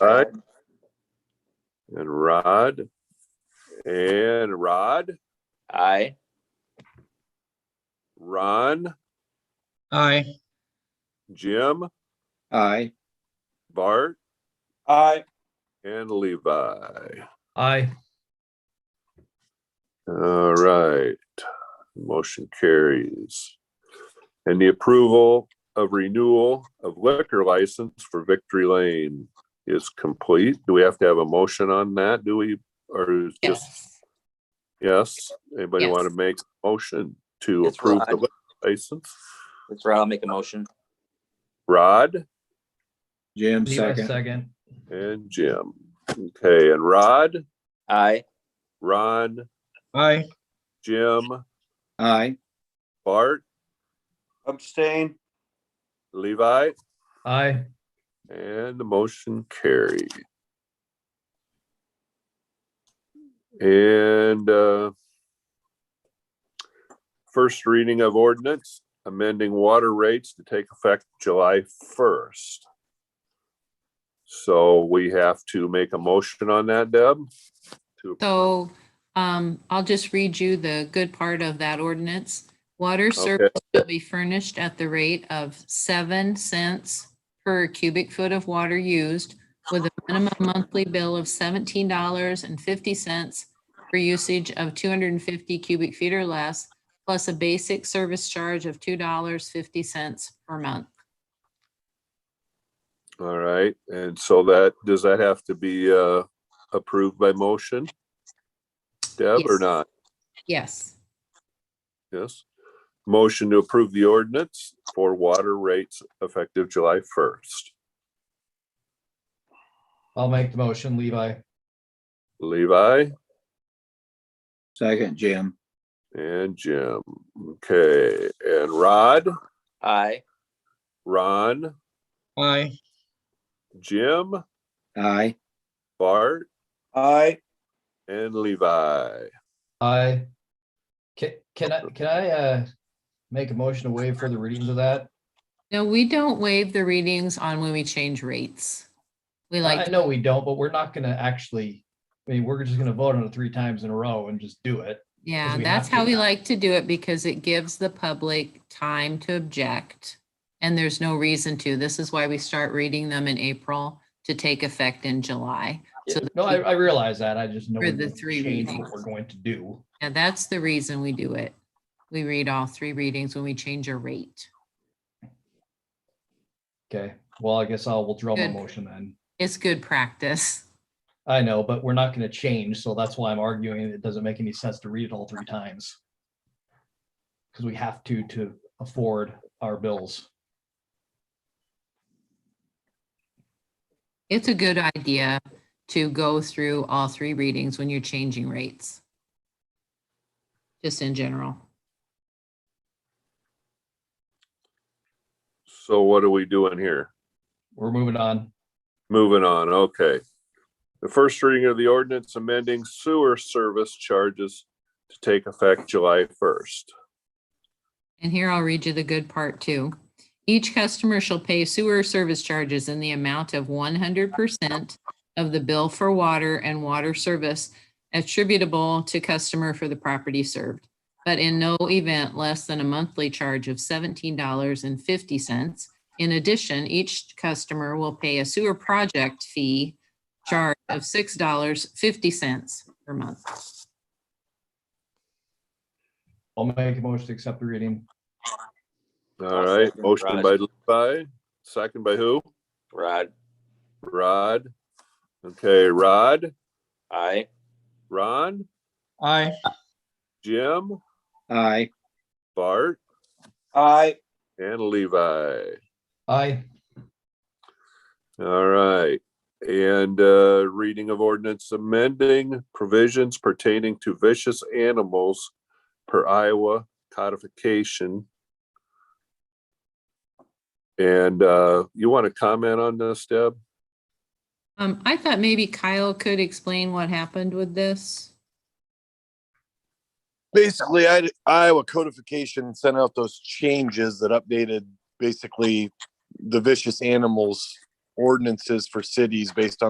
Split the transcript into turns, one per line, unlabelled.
Right. And Rod. And Rod,
Aye.
Ron,
Aye.
Jim,
Aye.
Bart,
Aye.
and Levi.
Aye.
All right, motion carries. And the approval of renewal of liquor license for Victory Lane is complete. Do we have to have a motion on that? Do we, or is just,
Yes.
yes? Anybody want to
Yes.
make a motion to
It's
approve the
Rod.
liquor license?
That's right. I'll make a motion.
Rod
Jim,
Levi
second.
second.
and Jim. Okay, and Rod,
Aye.
Ron,
Aye.
Jim,
Aye.
Bart,
Abstain.
Levi,
Aye.
and the motion carried. And uh, first reading of ordinance amending water rates to take effect July 1st. So we have to make a motion on that, Deb? To
So um, I'll just read you the good part of that ordinance. Water service will be furnished at the rate of seven cents per cubic foot of water used with a minimum monthly bill of seventeen dollars and fifty cents for usage of two hundred and fifty cubic feet or less, plus a basic service charge of two dollars fifty cents per month.
All right, and so that, does that have to be uh, approved by motion? Deb, or
Yes.
not?
Yes.
Yes. Motion to approve the ordinance for water rates effective July first.
I'll make the motion, Levi.
Levi
Second, Jim.
and Jim. Okay, and Rod,
Aye.
Ron,
Aye.
Jim,
Aye.
Bart,
Aye.
and Levi.
Aye. Can, can I, can I, uh, make a motion to waive further readings of that?
No, we don't waive the readings on when we change rates. We like.
I know we don't, but we're not gonna actually, I mean, we're just gonna vote on it three times in a row and just do it.
Yeah,
we
that's
have to
how we
now.
like to do it because it gives the public time to object. And there's no reason to. This is why we start reading them in April to take effect in July. So
No, I, I realize that. I just know.
For
we
the
wouldn't
three
change what
readings.
We're going to do.
And that's the reason we do it. We read all three readings when we change a rate.
Okay, well, I guess I'll withdraw my
Good.
motion then.
It's good practice.
I know, but we're not gonna change, so that's why I'm arguing it doesn't make any sense to read it all three times. Because we have to, to afford our bills.
It's a good idea to go through all three readings when you're changing rates. Just in general.
So what are we doing here?
We're moving on.
Moving on, okay. The first reading of the ordinance amending sewer service charges to take effect July first.
And here I'll read you the good part too. Each customer shall pay sewer service charges in the amount of one hundred percent of the bill for water and water service attributable to customer for the property served, but in no event less than a monthly charge of seventeen dollars and fifty cents. In addition, each customer will pay a sewer project fee charge of six dollars fifty cents per month.
I'll make a motion to accept the reading.
All right,
Second,
motion by Levi, second by who?
Rod.
Rod. Okay, Rod,
Aye.
Ron,
Aye.
Jim,
Aye.
Bart,
Aye.
and Levi.
Aye,
All right. And uh, reading of ordinance amending provisions pertaining to vicious animals per Iowa codification. And uh, you want to comment on this, Deb?
Um, I thought maybe Kyle could explain what happened with this.
basically I, iowa codification sent out those changes that updated basically the vicious animals ordinances for cities based on